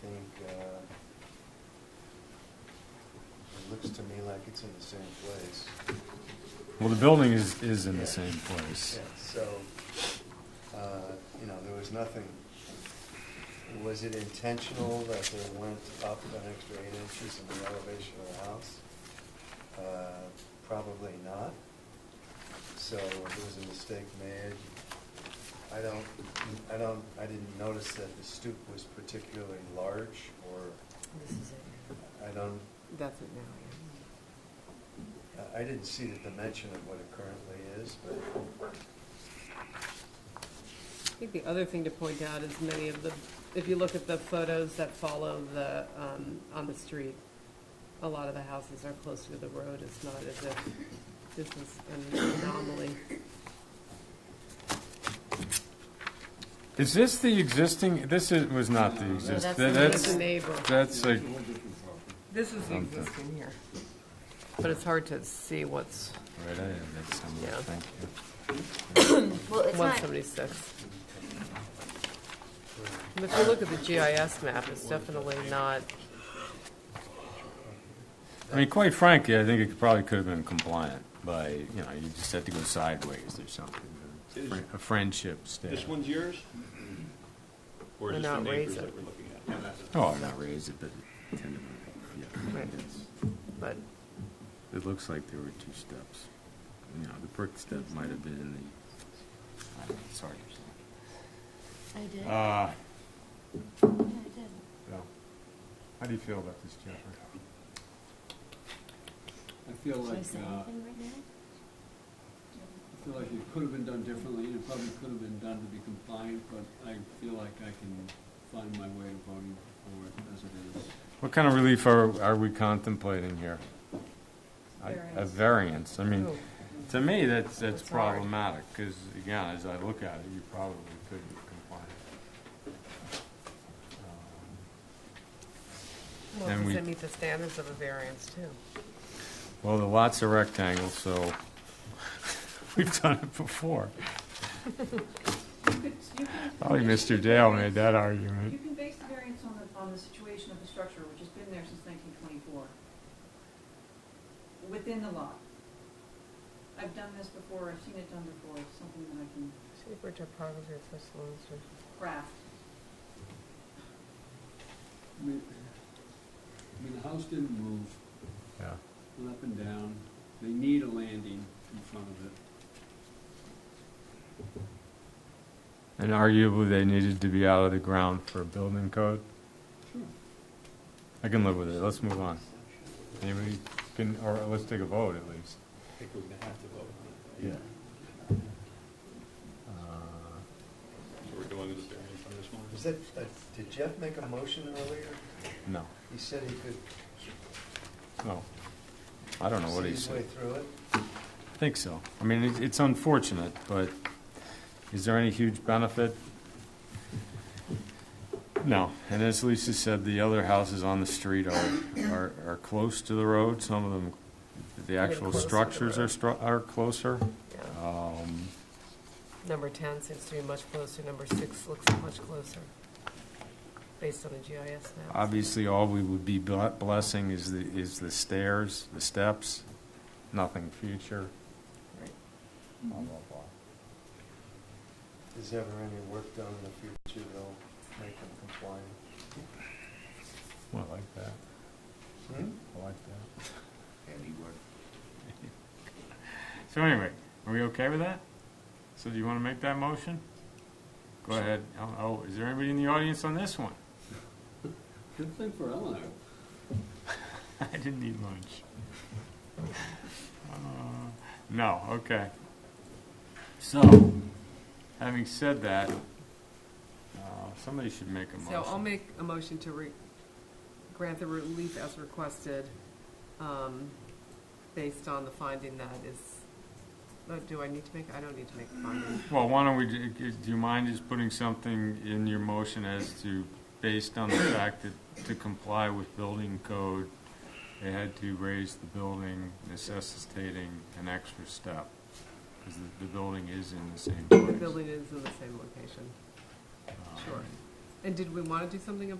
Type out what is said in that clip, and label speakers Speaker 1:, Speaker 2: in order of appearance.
Speaker 1: think, uh, it looks to me like it's in the same place.
Speaker 2: Well, the building is, is in the same place.
Speaker 1: Yeah, so, uh, you know, there was nothing, was it intentional that they went up an extra eight inches in the elevation of the house? Uh, Probably not. So it was a mistake made. I don't, I don't, I didn't notice that the stoop was particularly large, or,
Speaker 3: This is it.
Speaker 1: I don't,
Speaker 3: That's it now.
Speaker 1: I didn't see the dimension of what it currently is, but
Speaker 3: yeah. I think the other thing to point out is many of the, if you look at the photos that follow the, um, on the street, a lot of the houses are closer to the road. It's not as if this is an anomaly.
Speaker 2: Is this the existing, this is, was not the existing, that's,
Speaker 3: the neighbor.
Speaker 2: that's a,
Speaker 3: This is the
Speaker 2: Something.
Speaker 3: existing here. But it's hard to see what's
Speaker 2: right, I am, that's, I'm-
Speaker 3: Yeah.
Speaker 2: thank you.
Speaker 4: Well, it's
Speaker 3: one
Speaker 4: not,
Speaker 3: seventy-six. If you look at the GIS map, it's definitely not,
Speaker 2: I mean, quite frankly, I think it probably could have been compliant by, you know, you just had to go sideways or something.
Speaker 5: Is-
Speaker 2: A friendship stair.
Speaker 5: This one's yours? Or
Speaker 3: We're
Speaker 5: is this the
Speaker 3: not
Speaker 5: neighbors
Speaker 3: raising.
Speaker 5: that we're looking at?
Speaker 2: Oh, not raised, it, but kind of, yeah.
Speaker 3: Right.
Speaker 2: it's-
Speaker 3: but
Speaker 2: It looks like there were two steps. You know, the brick step might have been in the, I don't know, sorry.
Speaker 4: I did,
Speaker 2: Uh,
Speaker 4: yeah,
Speaker 5: Ah.
Speaker 4: I did.
Speaker 2: Bill, how do you feel about this, Jeffrey?
Speaker 6: I feel
Speaker 4: Should
Speaker 6: like,
Speaker 4: I say
Speaker 6: uh,
Speaker 4: anything right now?
Speaker 6: I feel like it could have been done differently, and it probably could have been done to be compliant, but I feel like I can find my way to voting for it as it is.
Speaker 2: What kind of relief are, are we contemplating here? A- A variance, I mean,
Speaker 3: Oh.
Speaker 2: to me, that's, that's
Speaker 3: That's hard.
Speaker 2: problematic, because again, as I look at it, you probably couldn't comply. Um,
Speaker 3: Well,
Speaker 2: And
Speaker 3: does
Speaker 2: we-
Speaker 3: it meet the standards of a variance too?
Speaker 2: Well, the lot's a rectangle, so we've done it before. Probably Mr. Dale made that
Speaker 7: You
Speaker 2: argument.
Speaker 7: can base the variance on the, on the situation of the structure, which has been there since nineteen twenty-four, within the lot. I've done this before, I've seen it done before, it's something that I can
Speaker 3: Super topography or first lines or-
Speaker 7: craft.
Speaker 6: I mean, I mean, the house didn't move,
Speaker 2: Yeah.
Speaker 6: went up and down, they need a landing in front of it.
Speaker 2: And arguably, they needed to be out of the ground for building code. I can live with it, let's move on. Anybody can, or let's take a vote at least.
Speaker 5: I think we're gonna have to vote on it.
Speaker 2: Yeah. Uh,
Speaker 5: So we're going with the variance on this one?
Speaker 1: was that, uh, did Jeff make a motion earlier?
Speaker 2: No,
Speaker 1: He said he could
Speaker 2: no. I don't know what
Speaker 1: see
Speaker 2: he
Speaker 1: his way
Speaker 2: said.
Speaker 1: through it.
Speaker 2: I think so. I mean, it- it's unfortunate, but is there any huge benefit? No. And as Lisa said, the other houses on the street are, are, are close to the road. Some of them, the actual
Speaker 3: closer to the
Speaker 2: structures are,
Speaker 3: road.
Speaker 2: stru- are closer.
Speaker 3: yeah.
Speaker 2: Um,
Speaker 3: Number ten seems to be much closer, number six looks much closer, based on the GIS maps.
Speaker 2: Obviously, all we would be ble- blessing is the, is the stairs, the steps, nothing future,
Speaker 3: Right.
Speaker 2: blah, blah, blah.
Speaker 1: Is ever any work done in the future that'll make them compliant?
Speaker 2: Well, I like that. I like that. So anyway, are we okay with that? So do you want to make that motion? Go ahead. Oh, oh, is there anybody in the audience on this one?
Speaker 6: Good thing for Eleanor.
Speaker 2: I didn't eat lunch. Uh, No, okay. So, having said that, uh, somebody should make a
Speaker 3: So I'll
Speaker 2: motion.
Speaker 3: make a motion to re, grant the relief as requested, um, based on the finding that is, oh, do I need to make, I don't need to make the finding.
Speaker 2: Well, why don't we, do do you mind just putting something in your motion as to, based on the fact that to comply with building code, they had to raise the building necessitating an extra step? Because the building is in the same
Speaker 3: The
Speaker 2: place.
Speaker 3: building is in the same location,
Speaker 2: Um,
Speaker 3: sure. And did we want to do something about